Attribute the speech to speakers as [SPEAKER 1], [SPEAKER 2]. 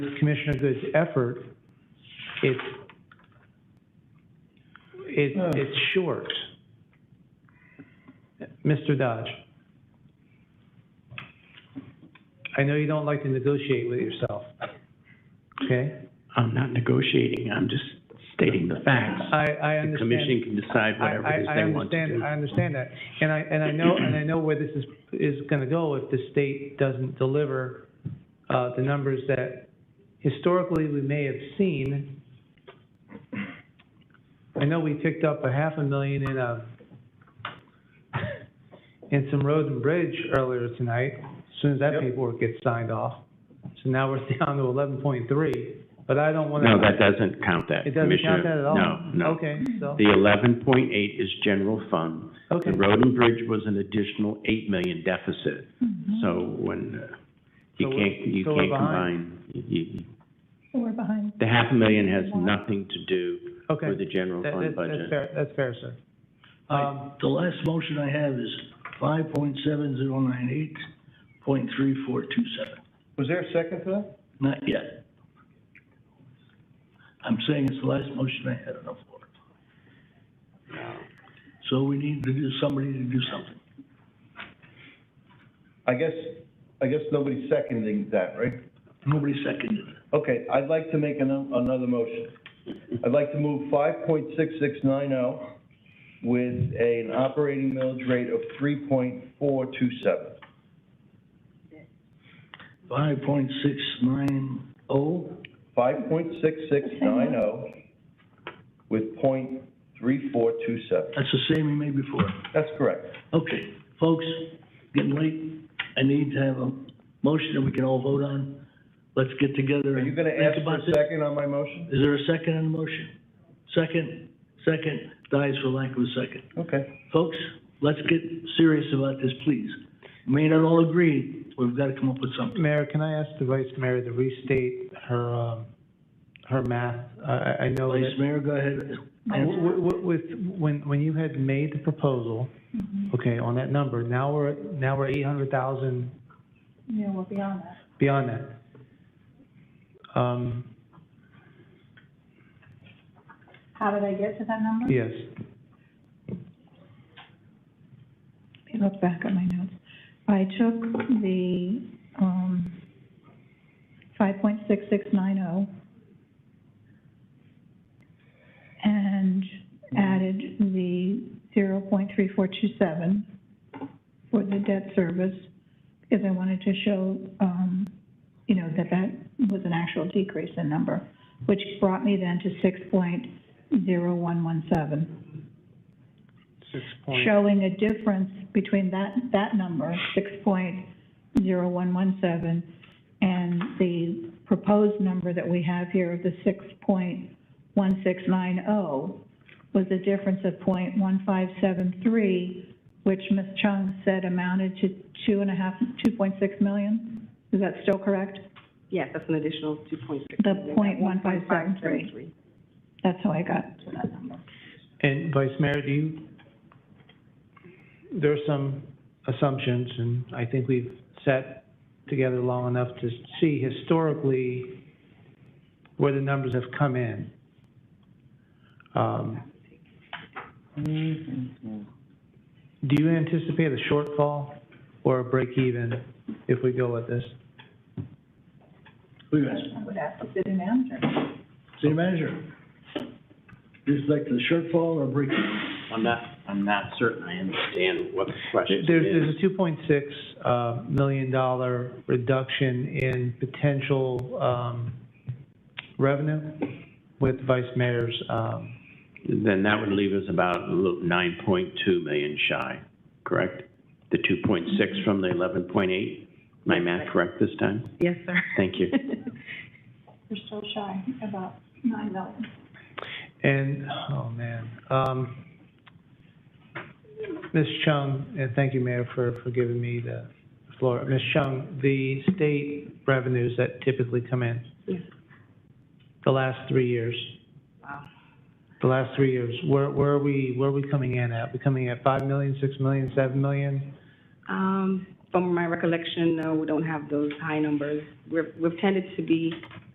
[SPEAKER 1] Commissioner Good's effort, it's, it, it's short. Mr. Dodge? I know you don't like to negotiate with yourself, okay?
[SPEAKER 2] I'm not negotiating, I'm just stating the facts.
[SPEAKER 1] I, I
[SPEAKER 2] The
[SPEAKER 1] understand.
[SPEAKER 2] commission can decide
[SPEAKER 1] I,
[SPEAKER 2] whatever it is
[SPEAKER 1] I, I
[SPEAKER 2] they want to
[SPEAKER 1] understand,
[SPEAKER 2] do.
[SPEAKER 1] I understand that. And I, and I know, and I know where this is, is gonna go if the state doesn't deliver, uh, the numbers that historically we may have seen. I know we picked up a half a million in a, in some road and bridge earlier tonight, as soon as that
[SPEAKER 3] Yep.
[SPEAKER 1] paperwork gets signed off. So now we're down to eleven point three, but I don't wanna.
[SPEAKER 2] No, that doesn't count that,
[SPEAKER 1] It doesn't count that at
[SPEAKER 2] Commissioner.
[SPEAKER 1] all?
[SPEAKER 2] No, no.
[SPEAKER 1] Okay, so,
[SPEAKER 2] The eleven point eight is general fund.
[SPEAKER 1] okay.
[SPEAKER 2] The road and bridge was an additional eight million deficit.
[SPEAKER 4] Mm-hmm.
[SPEAKER 2] So when, uh, you
[SPEAKER 1] Mm-hmm. So we're-
[SPEAKER 2] can't, you
[SPEAKER 1] so we're
[SPEAKER 2] can't
[SPEAKER 1] behind.
[SPEAKER 2] combine, you- you-
[SPEAKER 4] We're behind.
[SPEAKER 2] the half a million has nothing to do
[SPEAKER 1] Mm-hmm. Okay,
[SPEAKER 2] with the general
[SPEAKER 1] That-
[SPEAKER 2] fund
[SPEAKER 1] that- that's
[SPEAKER 2] budget.
[SPEAKER 1] fair, that's fair, sir. Um,
[SPEAKER 3] The last motion I have is five point seven zero nine eight point three four two seven.
[SPEAKER 1] Was there a second to that?
[SPEAKER 3] Not yet. I'm saying it's the last motion I had on the floor. So we need to do, somebody to do something.
[SPEAKER 5] I guess, I guess nobody's seconding that, right?
[SPEAKER 3] Nobody seconded it.
[SPEAKER 5] Okay, I'd like to make ano- another motion. I'd like to move five point six six nine oh with an operating millage rate of three point four two seven.
[SPEAKER 3] Five point six nine oh,
[SPEAKER 5] Five point six six nine oh with point three four two seven.
[SPEAKER 3] that's the same we made before.
[SPEAKER 5] That's correct.
[SPEAKER 3] Okay, folks, getting late. I need to have a motion that we can all vote on. Let's get together
[SPEAKER 5] Are you
[SPEAKER 3] and
[SPEAKER 5] gonna
[SPEAKER 3] think
[SPEAKER 5] ask for
[SPEAKER 3] about
[SPEAKER 5] a
[SPEAKER 3] this.
[SPEAKER 5] second on my motion?
[SPEAKER 3] Is there a second on the motion? Second, second, dies for lack of a second.
[SPEAKER 5] Okay.
[SPEAKER 3] Folks, let's get serious about this, please. May not all agree, we've got to come up with something.
[SPEAKER 1] Mayor, can I ask the vice mayor to restate her, um, her math? I, I- I know
[SPEAKER 3] Vice
[SPEAKER 1] that,
[SPEAKER 3] Mayor, go ahead.
[SPEAKER 1] w- w- w- with, when, when you had made the proposal,
[SPEAKER 4] Mm-hmm.
[SPEAKER 1] okay, on that number, now we're, now we're eight hundred thousand
[SPEAKER 4] Yeah, we're beyond that.
[SPEAKER 1] beyond that. Um,
[SPEAKER 4] How did I get to that number?
[SPEAKER 1] yes,
[SPEAKER 4] Let me look back at my notes. I took the, um, five point six six nine oh and added the zero point three four two seven for the debt service because I wanted to show, um, you know, that that was an actual decrease in number, which brought me then to six point zero one one seven
[SPEAKER 1] six point,
[SPEAKER 4] showing a difference between that, that number, six point zero one one seven, and the proposed number that we have here of the six point one six nine oh was a difference of point one five seven three, which Ms. Chung said amounted to two and a half, two point six million? Is that still correct?
[SPEAKER 6] Yes, that's an additional two point six.
[SPEAKER 4] The 0.1573. That's how I got to that number.
[SPEAKER 1] and vice mayor, do you, there are some assumptions, and I think we've sat together long enough to see historically where the numbers have come in. Um, Do you anticipate a shortfall or a break even if we go with this?
[SPEAKER 3] Who you asking?
[SPEAKER 4] I would ask the city manager.
[SPEAKER 3] City Manager? Just like the shortfall or break?
[SPEAKER 2] I'm not, I'm not certain I understand what the
[SPEAKER 1] There's,
[SPEAKER 2] question is.
[SPEAKER 1] there's a two point six, uh, million dollar reduction in potential, um, revenue with vice mayor's, um,
[SPEAKER 2] Then that would leave us about a little, nine point two million shy, correct? The two point six from the eleven point eight? My math correct this time?
[SPEAKER 6] Yes, sir.
[SPEAKER 2] Thank you.
[SPEAKER 4] We're still shy about nine million.
[SPEAKER 1] And, oh man, um, Ms. Chung, and thank you, Mayor, for, for giving me the floor. Ms. Chung, the state revenues that typically come in?
[SPEAKER 6] Yes.
[SPEAKER 1] The last three years,
[SPEAKER 6] Wow.
[SPEAKER 1] the last three years, where, where are we, where are we coming in at? We coming at five million, six million, seven million?
[SPEAKER 6] Um, from my recollection, no, we don't have those high numbers. We're, we've tended to be